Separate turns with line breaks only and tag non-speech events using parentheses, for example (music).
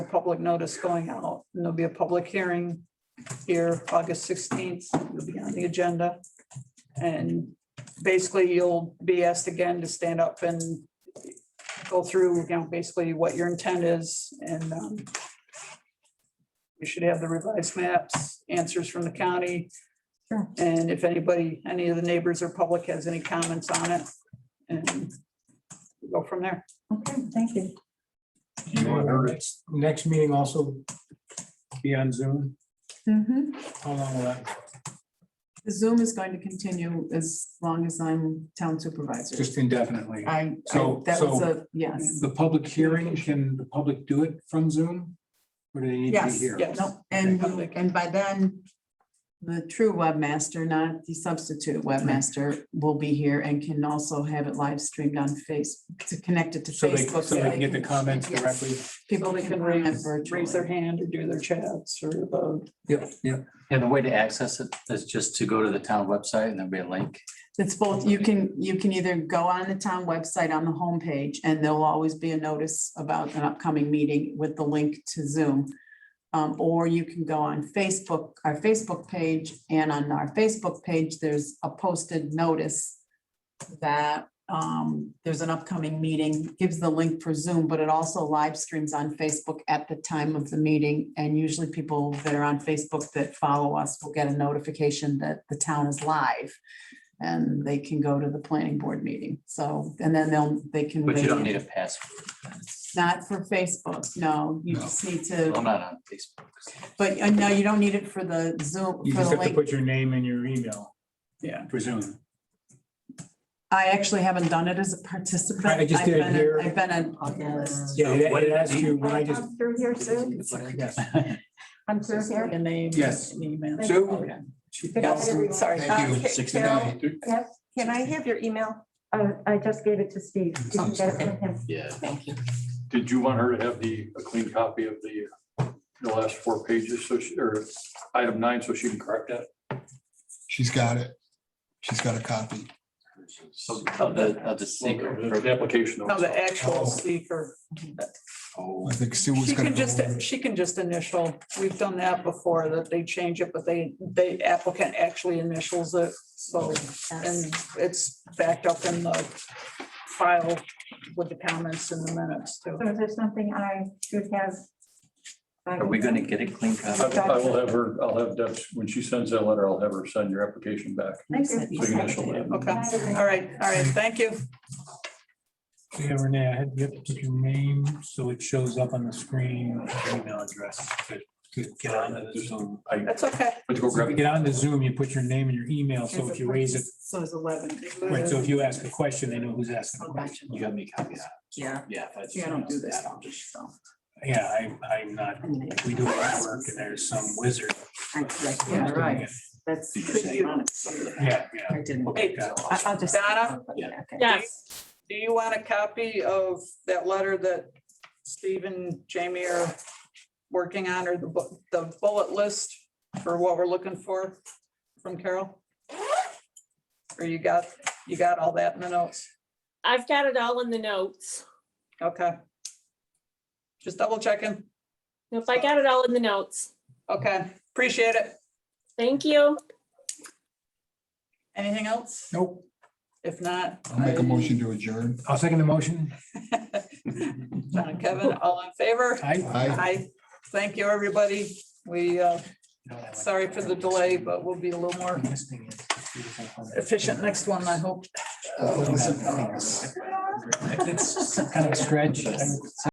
public notice going out, and there'll be a public hearing here, August sixteenth, you'll be on the agenda. And basically, you'll be asked again to stand up and go through, you know, basically what your intent is, and um, you should have the revised maps, answers from the county.
Sure.
And if anybody, any of the neighbors or public has any comments on it, and go from there.
Okay, thank you.
Do you want our next- Next meeting also be on Zoom?
Mm-hmm.
Mhm.
How long will that,
The Zoom is going to continue as long as I'm town supervisor.
just indefinitely?
I, I-
So-
that was
so-
a, yes.
The public hearing, can the public do it from Zoom? Or do they need to be
Yes,
here?
yes.
No, and, you- and by then, the true webmaster, not the substitute webmaster, will be here and can also have it live streamed on Face, to connect it to
So they,
Facebook.
so they can get the comments
Yes.
directly?
So
People
they
can
can
comment
raise, raise their
virtually.
hand or do their chats or vote.
Yep, yep.
Yeah, the way to access it is just to go to the town website and there'll be a link.
It's both, you can, you can either go on the town website on the homepage, and there'll always be a notice about an upcoming meeting with the link to Zoom. Um, or you can go on Facebook, our Facebook page, and on our Facebook page, there's a posted notice that um, there's an upcoming meeting, gives the link for Zoom, but it also live streams on Facebook at the time of the meeting. And usually people that are on Facebook that follow us will get a notification that the town is live. And they can go to the planning board meeting. So, and then they'll, they can.
But you don't
raise
need
it.
a password. That's-
Not for Facebook, no. You
No.
just need
I'm
to,
not on Facebook.
but uh, no, you don't need it for the Zoom,
You
for
just
the
have to
link.
put your name and your email
Yeah.
for Zoom.
I actually haven't done it as a participant.
I just
I've
did it
been a-
here.
I've been an analyst.
Yeah, it
what
it
did
asks you when I just,
I'm Through here, Sue.
yes.
I'm through
Just like
here.
a name.
Yes.
An email. Oh,
Sue?
Good night, everyone.
Sorry.
Uh, Ca- Carol,
Can I have your email?
uh, I just gave it to Steve. Did you get it from him?
(laughs) Yeah.
Did you want her to have the, a clean copy of the, the last four pages, so she, or item nine, so she can correct that?
She's got it. She's got a copy.
So Of the, of the secret.
The Application.
No, the actual speaker.
I think Sue was
Oh. She can
gonna go
just,
over it.
she can just initial. We've done that before, that they change it, but they, they applicant actually initials it. So, and it's backed up in the file with the comments in the minutes too.
So is there something I should have?
Are we gonna get a clean copy?
I I will have her, I'll have Deb's, when she sends that letter, I'll have her send your application back.
Thank you.
So you can initial that.
Okay, all right, all right, thank you.
Yeah, Renee, I had, you have to put your name, so it shows up on the screen, your email address. to- To get on the Zoom.
That's okay.
But to go
So if
grab
you
it.
get on the Zoom, you put your name and your email, so if you raise it,
So it's eleven.
right, so if you ask a question, they know who's asking the
Oh,
question.
gotcha.
You got me copies.
Yeah,
Yeah. if
yeah, I don't do that. I'll just, so.
Yeah, I, I'm not,
I'm gonna-
we do our work and there's some wizard.
I- like, Yeah, right. That's.
Could you-
Yeah, yeah.
I didn't.
Hey,
I- I'll just.
Donna?
Yeah, okay.
Yes,
Do you want a copy of that letter that Steve and Jamie are working on or the bu- the bullet list for what we're looking for from Carol? Or you got, you got all that in the notes?
I've got it all in the notes.
Okay. Just double checking.
If I got it all in the notes,
Okay, appreciate it.
thank you.
Anything else?
Nope,
If not.
I'll make a motion to adjourn.
I'll second the motion.
(laughs) John and Kevin, all in favor?
I,
Aye.
Hi, thank you, everybody. We, uh, sorry for the delay, but we'll be a little more efficient next one, I hope.
It's kind of a stretch. I-